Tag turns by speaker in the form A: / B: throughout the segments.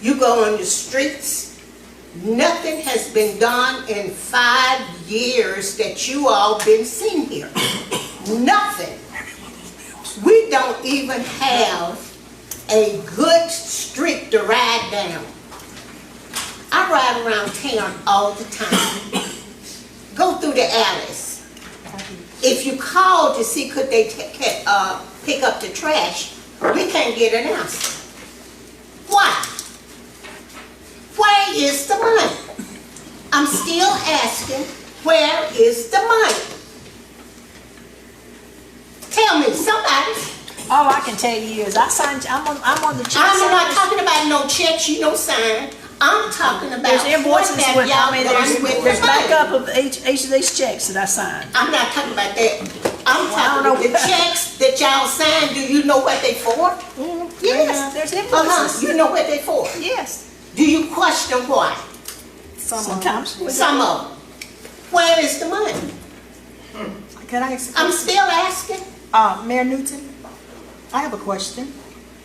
A: You go on the streets, nothing has been done in five years that you all been seen here. Nothing. We don't even have a good street to ride down. I ride around town all the time. Go through the alleys. If you call to see could they ta- ca- uh, pick up the trash, we can't get an answer. Why? Where is the money? I'm still asking, where is the money? Tell me, somebody.
B: All I can tell you is I signed, I'm on, I'm on the check.
A: I'm not
B: service.
A: talking about no checks you don't sign. I'm talking about
B: There's invoices
A: what have
B: with, I
A: y'all
B: mean,
A: done with the
B: there's, there's
A: money.
B: backup of each, each of these checks that I signed.
A: I'm not talking about that. I'm
B: I don't
A: talking about the
B: know.
A: checks that y'all signed. Do you know what they for? Yes.
B: There's
A: Mm-hmm. Uh-huh,
B: invoices.
A: you know what they for.
B: Yes.
A: Do you question why?
B: Sometimes. we-
A: Some of them. Where is the money?
C: Can I ask,
A: I'm still asking.
C: uh, Mayor Newton? I have a question.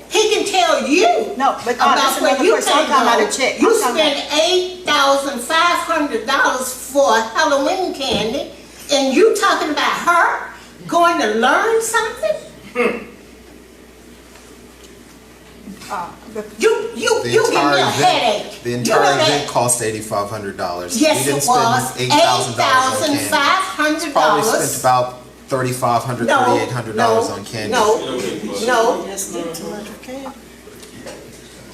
A: He can tell you.
C: No, but, uh, that's
A: About where
C: another
A: you
C: question.
A: can
C: I'm talking about a
A: go.
C: check.
A: You
C: I'm talking about-
A: spend eight thousand five hundred dollars for Halloween candy, and you talking about her going to learn something?
C: Hmm. Uh, the-
A: You, you,
D: The
A: you give me
D: entire
A: a
D: event-
A: headache.
D: The
A: You know
D: entire
A: that?
D: event cost eighty-five hundred dollars.
A: Yes, it was.
D: Eight thousand dollars on
A: Eight thousand
D: candy.
A: five hundred
D: Probably spent
A: dollars.
D: about thirty-five hundred, thirty-eight hundred dollars on candy.
A: No, no,
B: Yes, need to let her can.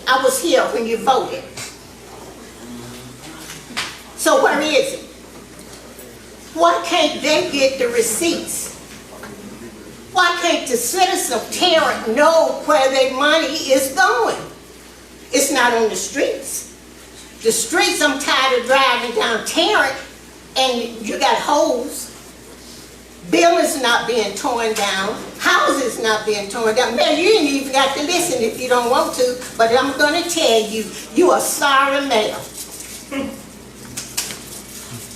A: I was here when you voted. So where is it? Why can't they get the receipts? Why can't the citizens of Tarrant know where their money is going? It's not on the streets. The streets, I'm tired of driving down Tarrant and you got holes. Buildings not being torn down, houses not being torn down. Man, you ain't even got to listen if you don't want to, but I'm gonna tell you, you are sorry mayor.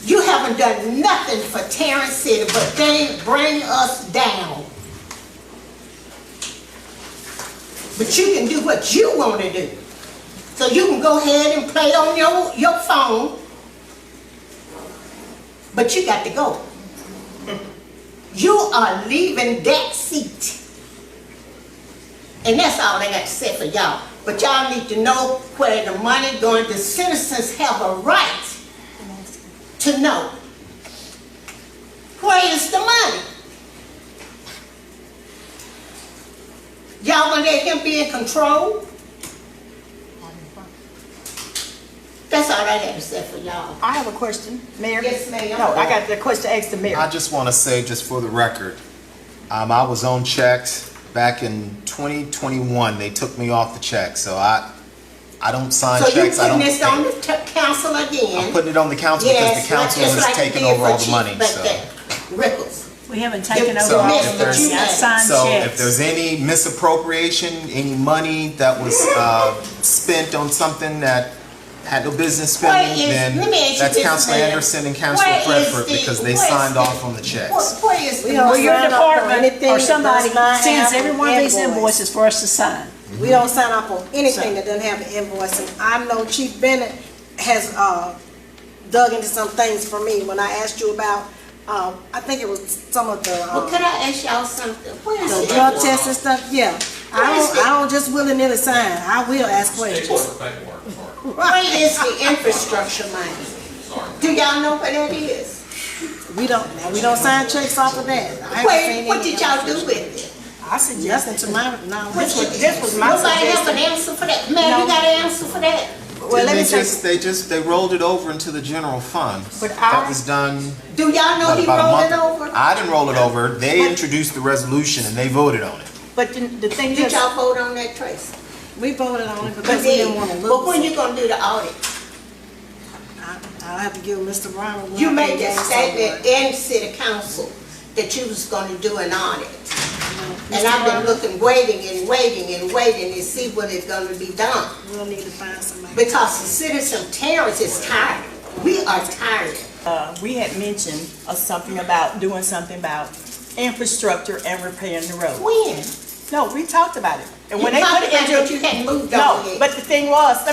A: You haven't done nothing for Tarrant City, but they bring us down. But you can do what you wanna do. So you can go ahead and play on your, your phone, but you got to go. You are leaving that seat. And that's all I got to say for y'all. But y'all need to know where the money going. The citizens have a right to know. Where is the money? Y'all gonna let him be in control? That's all I got to say for y'all.
C: I have a question, Mayor.
A: Yes, ma'am.
C: No, I got the question asked to
D: I
C: Mayor.
D: just want to say, just for the record, um, I was on checks back in twenty twenty-one. They took me off the check, so I, I don't sign
A: So you
D: checks. I
A: putting
D: don't.
A: this on
D: pay.
A: the t- council again?
D: I'm putting it on the council because the council
A: just
D: is
A: like
D: taking
A: we did
D: over all
A: for
D: the
A: Chief
D: money,
A: Buck
D: so.
A: Day. Rickles.
B: We haven't taken
A: So
B: over all
D: if
B: of
D: there's-
B: these. I signed
D: So if
B: checks.
D: there's any misappropriation, any money that was uh, spent on something that had no business
A: Where
D: spending,
A: is-
D: then
A: let me ask you
D: that's
A: this,
D: Council
A: ma'am.
D: Anderson and Council
A: Where is
D: Bradford
A: the-
D: because they
A: where is
D: signed
A: the-
D: off on the checks.
A: Where where is the
C: don't
B: Well, your
C: sign up for
B: department
C: anything
B: or
C: that
B: somebody
C: does not
B: sends
C: have
B: every one of these
C: invoice.
B: invoices for us to sign.
C: We don't sign up on anything that doesn't have an invoice, and I know Chief Bennett has, uh, dug into some things for me when I asked you about, uh, I think it was some of the,
A: Well,
C: uh,
A: could I ask y'all something? Where is
C: the
A: it?
C: drug tests and stuff, yeah. I don't, I don't just willy-nilly sign, I will ask questions.
A: Where is the infrastructure money? Do y'all know where that is?
C: We don't, we don't sign checks off of that. I haven't
A: Where,
C: seen
A: what
C: any.
A: did y'all do with it?
C: I suggested to my, no,
A: What
C: this was,
A: you-
C: this was my
A: Nobody have an
C: suggestion.
A: answer for that? Ma'am, you
C: No.
A: got an answer for that?
C: Well, let
D: They
C: me say,
D: just, they just, they rolled it over into the general fund.
C: But
D: That
C: I-
D: was done
A: Do y'all know
D: what,
A: he
D: about a
A: rolled it
D: month.
A: over?
D: I didn't roll it over. They
C: But-
D: introduced the resolution and they voted on it.
C: but the- the thing
A: Did
C: is,
A: y'all vote on that, Tracy?
C: we voted on it because we didn't want to
A: But when
C: lose.
A: you gonna do the audit?
C: I- I'll have to give Mr. Ryan one.
A: You made
C: thing
A: a
C: down
A: statement
C: somewhere.
A: in city council that you was gonna do an audit. And
C: Mr.
A: I've been
C: Ryan,
A: looking, waiting and waiting and waiting to see what is gonna be done.
C: We'll need to find somebody.
A: Because the citizen of Terrence is tired. We are tired.
E: Uh, we had mentioned uh, something about, doing something about infrastructure and repairing the road.
A: When?
E: No, we talked about it. And when
A: You
E: they put
A: talked
E: it
A: about
E: into.
A: that you hadn't moved on
E: No,
A: yet.
E: but the thing was, let me